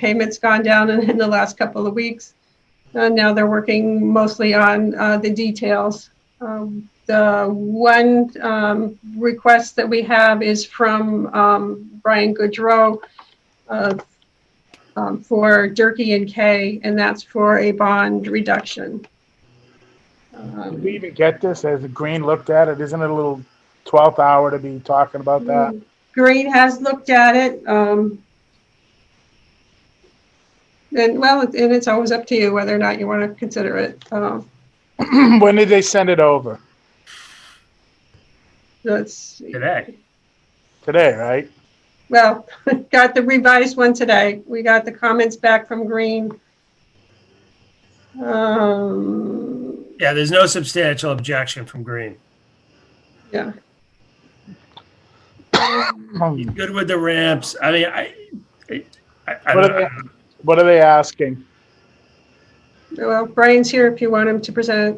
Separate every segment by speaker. Speaker 1: payments gone down in, in the last couple of weeks. Uh, now they're working mostly on uh, the details. Um, the one um, request that we have is from um, Brian Goodrow uh, um, for Durkee and Kay, and that's for a bond reduction.
Speaker 2: Did
Speaker 1: Um,
Speaker 2: we even get this? Has Green looked at it? Isn't it a little twelfth hour to be talking about that?
Speaker 1: Green has looked at it. um, And, well, and it's always up to you whether or not you want to consider it. Uh,
Speaker 2: When did they send it over?
Speaker 1: That's,
Speaker 3: today.
Speaker 2: Today, right?
Speaker 1: well, got the revised one today. We got the comments back from Green. Um,
Speaker 3: Yeah, there's no substantial objection from Green.
Speaker 1: Yeah,
Speaker 2: Hmm.
Speaker 3: Good with the ramps. I mean, I, I, I, I
Speaker 2: What
Speaker 3: don't
Speaker 2: are
Speaker 3: know.
Speaker 2: they, what are they asking?
Speaker 1: well, Brian's here if you want him to present.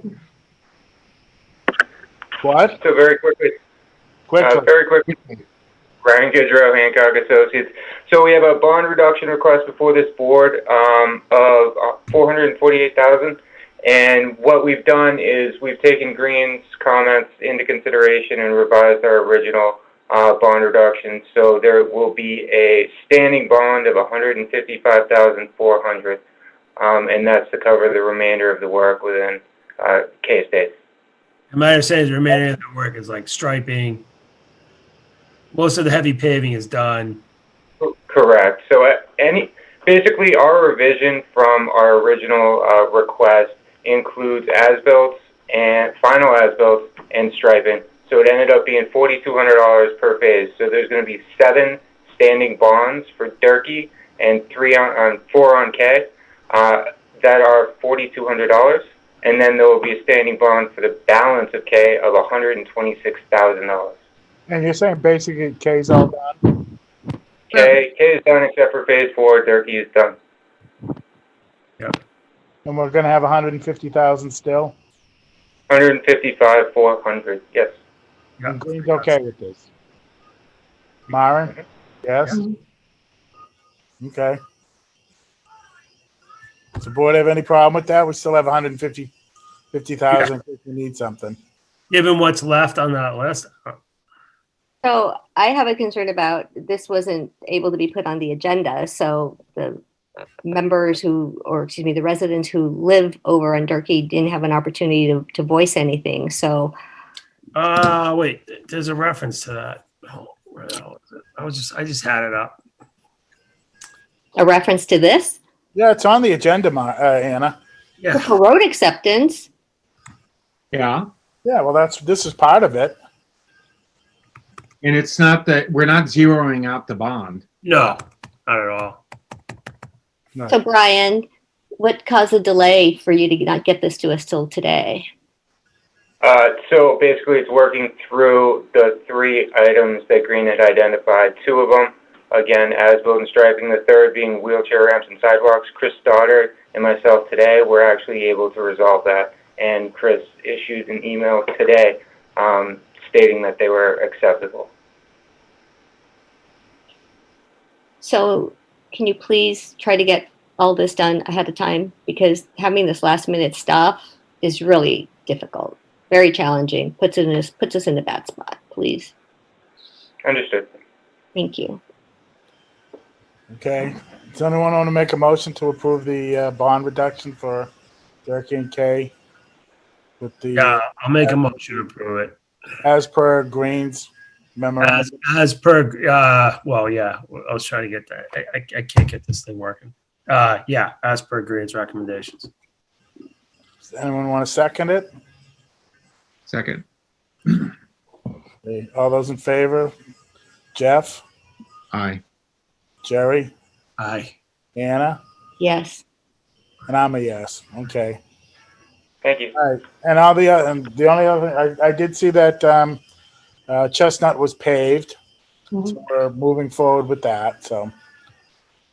Speaker 2: What?
Speaker 4: So very quickly, uh,
Speaker 2: Quickly.
Speaker 4: very quickly, Ryan Goodrow, Hancock Associates. So we have a bond reduction request before this board um, of uh, 448000 and what we've done is we've taken Green's comments into consideration and revised our original uh, bond reduction. So there will be a standing bond of 155400 um, and that's to cover the remainder of the work within uh, K-State.
Speaker 3: My understanding is the remaining of the work is like striping. Most of the heavy paving is done.
Speaker 4: Correct. So uh, any, basically, our revision from our original uh, request includes as-built and final as-built and striping. So it ended up being forty-two hundred dollars per phase. So there's going to be seven standing bonds for Durkee and three on, on four on K uh, that are forty-two hundred dollars, and then there will be a standing bond for the balance of K of one hundred and twenty-six thousand dollars.
Speaker 2: And you're saying basically K's all done?
Speaker 4: K K is done except for phase four. Durkee is done.
Speaker 2: And we're gonna have hundred and fifty thousand still?
Speaker 4: 155, 400, yes.
Speaker 2: And Green's okay with this? Myron? Yes? Okay. Does the board have any problem with that? We still have 150, 50,000 if we need something.
Speaker 3: Given what's left on that list,
Speaker 5: So I have a concern about this wasn't able to be put on the agenda. So the members who, or excuse me, the residents who live over on Durkee didn't have an opportunity to, to voice anything. So
Speaker 3: uh, wait, th- there's a reference to that. Oh, where the hell is it? I was just, I just had it up.
Speaker 5: a reference to this,
Speaker 2: Yeah, it's on the agenda, Mar- uh, Anna.
Speaker 3: Yeah,
Speaker 5: for road acceptance,
Speaker 6: Yeah,
Speaker 2: Yeah, well, that's, this is part of it.
Speaker 6: and it's not that, we're not zeroing out the bond.
Speaker 3: no, not at all.
Speaker 5: So Brian, what caused the delay for you to not get this to us till today?
Speaker 4: Uh, so basically, it's working through the three items that Green had identified. Two of them, again, as-built and striping. The third being wheelchair ramps and sidewalks. Chris Stoddard and myself today were actually able to resolve that, and Chris issued an email today um, stating that they were acceptable.
Speaker 5: So can you please try to get all this done ahead of time? Because having this last minute stuff is really difficult, very challenging, puts it in us, puts us in a bad spot, please.
Speaker 4: Understood.
Speaker 5: Thank you.
Speaker 2: Okay. Does anyone want to make a motion to approve the uh, bond reduction for Durkee and K? With
Speaker 3: Yeah,
Speaker 2: the,
Speaker 3: I'll make a motion to approve it.
Speaker 2: as per Green's memorandum?
Speaker 3: As, as per, uh, well, yeah, I was trying to get that. I, I, I can't get this thing working. Uh, yeah, as per Green's recommendations.
Speaker 2: Does anyone want to second it?
Speaker 6: Second,
Speaker 2: Okay, All those in favor? Jeff,
Speaker 6: aye.
Speaker 2: Jerry,
Speaker 3: Aye.
Speaker 2: Anna?
Speaker 5: Yes.
Speaker 2: And I'm a yes. Okay.
Speaker 4: Thank you.
Speaker 2: All right. And all the oth- and the only other I, I did see that um, uh, Chestnut was paved. So we're moving forward with that. So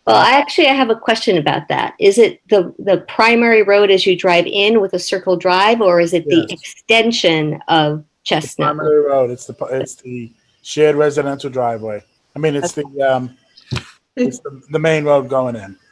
Speaker 5: Well, I actually I have a question about that. Is it the the primary road as you drive in with a circle drive, or is it
Speaker 2: Yes.
Speaker 5: the extension of
Speaker 2: it's
Speaker 5: Chestnut?
Speaker 2: primary road. It's the pu- it's the shared residential driveway. I mean, it's the um, it's the, the main road going in.